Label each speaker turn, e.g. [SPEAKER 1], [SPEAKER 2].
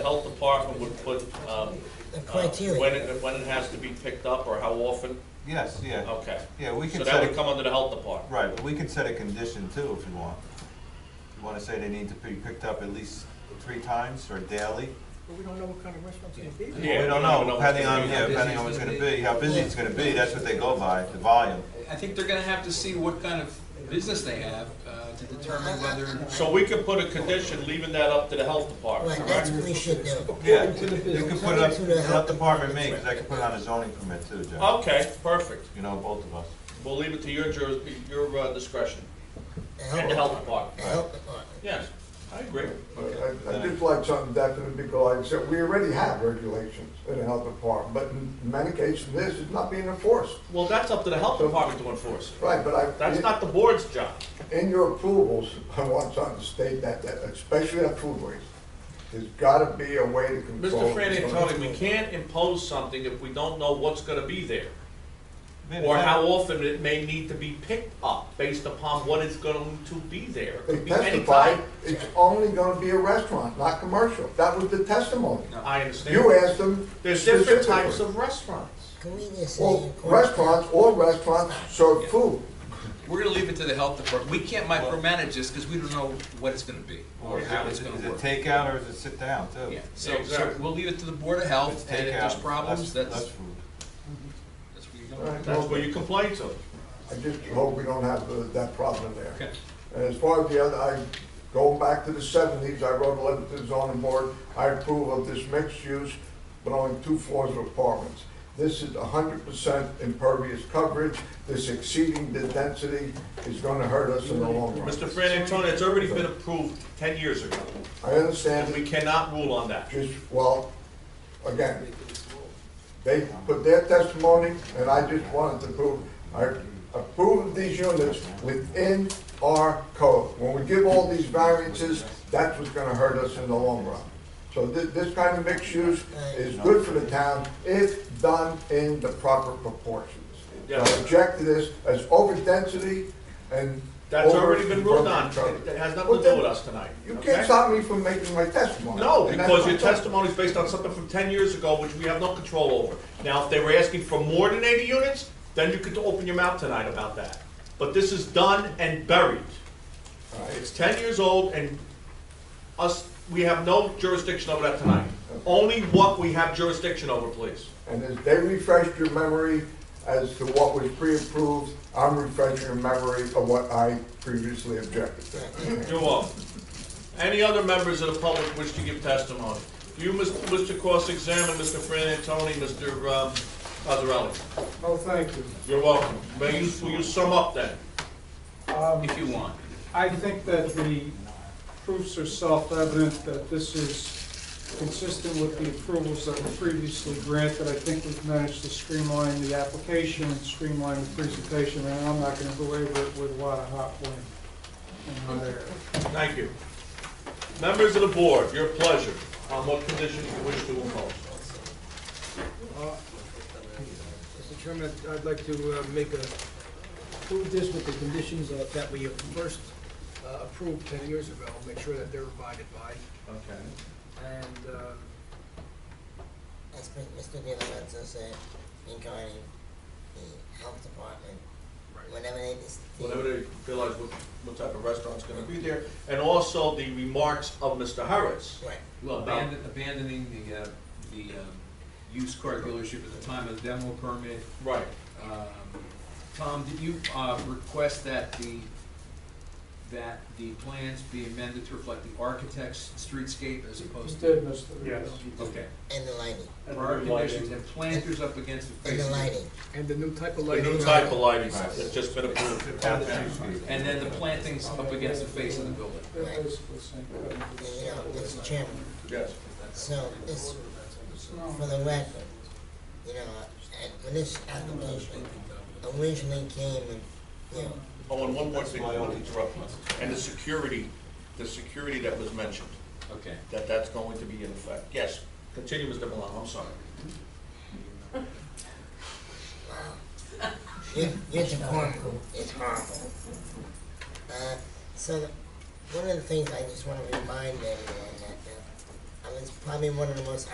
[SPEAKER 1] health department would put, um,
[SPEAKER 2] The
[SPEAKER 1] uh,
[SPEAKER 2] criteria.
[SPEAKER 1] When it, when it has to be picked up or how often?
[SPEAKER 3] Yes, yeah.
[SPEAKER 1] Okay.
[SPEAKER 3] Yeah, we
[SPEAKER 1] Oh. So
[SPEAKER 3] can
[SPEAKER 1] that
[SPEAKER 3] set
[SPEAKER 1] would
[SPEAKER 3] a,
[SPEAKER 1] come under the health department?
[SPEAKER 3] right, but we can set a condition too if you want. If You wanna say they need to be picked up at least three times or daily?
[SPEAKER 4] But we don't know what kind of restaurant's gonna be.
[SPEAKER 3] We
[SPEAKER 1] Yeah, we
[SPEAKER 3] don't
[SPEAKER 1] don't even know
[SPEAKER 3] know,
[SPEAKER 1] what's
[SPEAKER 3] depending
[SPEAKER 1] gonna
[SPEAKER 3] on,
[SPEAKER 1] be.
[SPEAKER 3] yeah,
[SPEAKER 1] How
[SPEAKER 3] depending on what's gonna be, how busy it's gonna be, that's what they go by, the volume.
[SPEAKER 5] I think they're gonna have to see what kind of business they have uh, to determine whether
[SPEAKER 1] So we could put a condition leaving that up to the health department,
[SPEAKER 2] Right, that's
[SPEAKER 1] correct?
[SPEAKER 2] what we should do.
[SPEAKER 3] Yeah,
[SPEAKER 4] According to the
[SPEAKER 3] you can
[SPEAKER 4] business.
[SPEAKER 3] put it up,
[SPEAKER 2] According to the
[SPEAKER 3] health
[SPEAKER 2] health
[SPEAKER 3] department, me,
[SPEAKER 2] department.
[SPEAKER 3] because I can put it on a zoning permit too, Joe.
[SPEAKER 1] Okay, perfect.
[SPEAKER 3] You know, both of us.
[SPEAKER 1] We'll leave it to your juris, your uh, discretion,
[SPEAKER 2] The
[SPEAKER 1] and the health department.
[SPEAKER 2] The health department.
[SPEAKER 1] Yes, I agree.
[SPEAKER 6] I I did like something definite because I said, we already have regulations in the health department, but in many cases, this is not being enforced.
[SPEAKER 1] Well, that's up to the health department to enforce it.
[SPEAKER 6] Right, but I.
[SPEAKER 1] That's not the board's job.
[SPEAKER 6] In your approvals, I want something to state that, that especially at food waste, there's gotta be a way to control.
[SPEAKER 1] Mr. Fran Antoni, we can't impose something if we don't know what's gonna be there,
[SPEAKER 3] I mean,
[SPEAKER 1] or
[SPEAKER 3] it's
[SPEAKER 1] how
[SPEAKER 3] not-
[SPEAKER 1] often it may need to be picked up, based upon what is going to be there. It
[SPEAKER 6] They
[SPEAKER 1] could be any
[SPEAKER 6] testified,
[SPEAKER 1] time.
[SPEAKER 6] it's only gonna be a restaurant, not commercial. That was the testimony.
[SPEAKER 1] I understand.
[SPEAKER 6] You asked them.
[SPEAKER 1] There's different
[SPEAKER 6] specifically.
[SPEAKER 1] types of restaurants.
[SPEAKER 2] Can we just say?
[SPEAKER 6] Well,
[SPEAKER 2] according-
[SPEAKER 6] restaurants, all restaurants serve food.
[SPEAKER 5] we're gonna leave it to the health department. We can't micromanage this because we don't know what it's gonna be
[SPEAKER 3] Or
[SPEAKER 5] or
[SPEAKER 3] is
[SPEAKER 5] how
[SPEAKER 3] it- is
[SPEAKER 5] it's
[SPEAKER 3] it
[SPEAKER 5] gonna
[SPEAKER 3] is it
[SPEAKER 5] work.
[SPEAKER 3] takeout or is it sit down too?
[SPEAKER 5] Yeah,
[SPEAKER 3] If
[SPEAKER 5] so, so
[SPEAKER 1] Exactly.
[SPEAKER 5] we'll leave it to the board of
[SPEAKER 3] it's
[SPEAKER 5] health, and if there's
[SPEAKER 3] takeout,
[SPEAKER 5] problems,
[SPEAKER 3] less
[SPEAKER 5] that's,
[SPEAKER 3] food.
[SPEAKER 5] that's where you
[SPEAKER 6] All
[SPEAKER 5] go.
[SPEAKER 6] right,
[SPEAKER 1] That's
[SPEAKER 6] well,
[SPEAKER 1] where you complain to.
[SPEAKER 6] I just hope we don't have uh, that problem there.
[SPEAKER 5] Okay.
[SPEAKER 6] And as far as the other, I, going back to the seventies, I wrote a letter to the zoning board, I approve of this mixed use, but only two floors of apartments. This is hundred percent impervious coverage, this exceeding the density is gonna hurt us in the long run.
[SPEAKER 1] Mr. Fran Antoni, it's already been approved ten years ago,
[SPEAKER 6] I understand,
[SPEAKER 1] and we cannot rule on that.
[SPEAKER 6] just, well, again, they put their testimony, and I just wanted to prove, I approve of these units within our code. When we give all these variances, that's what's gonna hurt us in the long run. So thi- this kind of mixed use is good for the town if done in the proper proportions. I
[SPEAKER 1] Yeah.
[SPEAKER 6] object to this as over density and.
[SPEAKER 1] That's
[SPEAKER 6] over-
[SPEAKER 1] already been ruled on. It it has nothing to do with us tonight.
[SPEAKER 6] You
[SPEAKER 1] okay?
[SPEAKER 6] can't stop me from making my testimony.
[SPEAKER 1] No,
[SPEAKER 6] And that's
[SPEAKER 1] because
[SPEAKER 6] my
[SPEAKER 1] your
[SPEAKER 6] point.
[SPEAKER 1] testimony is based on something from ten years ago, which we have no control over. Now, if they were asking for more than eighty units, then you could open your mouth tonight about that. But this is done and buried.
[SPEAKER 6] All right.
[SPEAKER 1] It's ten years old, and us, we have no jurisdiction over that tonight. Only what we have jurisdiction over, please.
[SPEAKER 6] And as they refreshed your memory as to what was pre-approved, I'm refreshing your memory of what I previously objected to.
[SPEAKER 1] You're welcome. Any other members of the public wish to give testimony? You, Mr. wish to cross-examine Mr. Fran Antoni, Mr. um, Cazarelli.
[SPEAKER 4] Oh, thank you.
[SPEAKER 1] You're welcome. May you, will you sum up then?
[SPEAKER 4] Um,
[SPEAKER 5] If you want.
[SPEAKER 4] I think that the proofs are self-evident, that this is consistent with the approvals that were previously granted. I think we've managed to streamline the application and streamline the presentation, and I'm not gonna belabor it with a lot of hot wind and hot air.
[SPEAKER 1] Thank you. Members of the board, your pleasure, on what conditions you wish to impose.
[SPEAKER 7] Mr. Chairman, I'd- I'd like to uh, make a, approve this with the conditions uh, that we first uh, approved ten years ago, make sure that they're abided by,
[SPEAKER 1] Okay.
[SPEAKER 7] and, uh,
[SPEAKER 2] As Mr. De Lorenzo said, regarding the health department, whenever they. dis-
[SPEAKER 1] Whenever they realize what, what type of restaurant's gonna be there, and also the remarks of Mr. Harris.
[SPEAKER 2] Right.
[SPEAKER 5] Well, abandon- abandoning the, uh, the um, used car dealership at the time of the demo permit.
[SPEAKER 1] Right.
[SPEAKER 5] Um, Tom, did you uh, request that the, that the plans be amended to reflect the architect's streetscape as opposed to?
[SPEAKER 4] did, Mr.
[SPEAKER 1] Yes.
[SPEAKER 5] Okay.
[SPEAKER 2] And the lighting,
[SPEAKER 5] Prior conditions and planters up against the
[SPEAKER 2] and
[SPEAKER 5] face.
[SPEAKER 2] the
[SPEAKER 5] of the-
[SPEAKER 2] lighting.
[SPEAKER 7] and the new type of
[SPEAKER 1] The
[SPEAKER 7] lighting.
[SPEAKER 1] new type of lighting that's just been approved.
[SPEAKER 3] Down to two feet.
[SPEAKER 5] And then the plantings up against the face of the building.
[SPEAKER 4] They're basically the same
[SPEAKER 2] And,
[SPEAKER 4] code.
[SPEAKER 2] You know, Mr. Chairman,
[SPEAKER 1] Yes.
[SPEAKER 2] so this, for the record, you know, and when this application originally came and, you know,
[SPEAKER 1] Oh, and one more thing, I want to interrupt you. And the security, the security that was mentioned,
[SPEAKER 5] Okay.
[SPEAKER 1] that that's going to be in effect. Yes, continue, Mr. Milano, I'm sorry.
[SPEAKER 2] Your, your department is horrible. Uh, so, one of the things I just wanna remind everyone that, uh, it's probably one of the most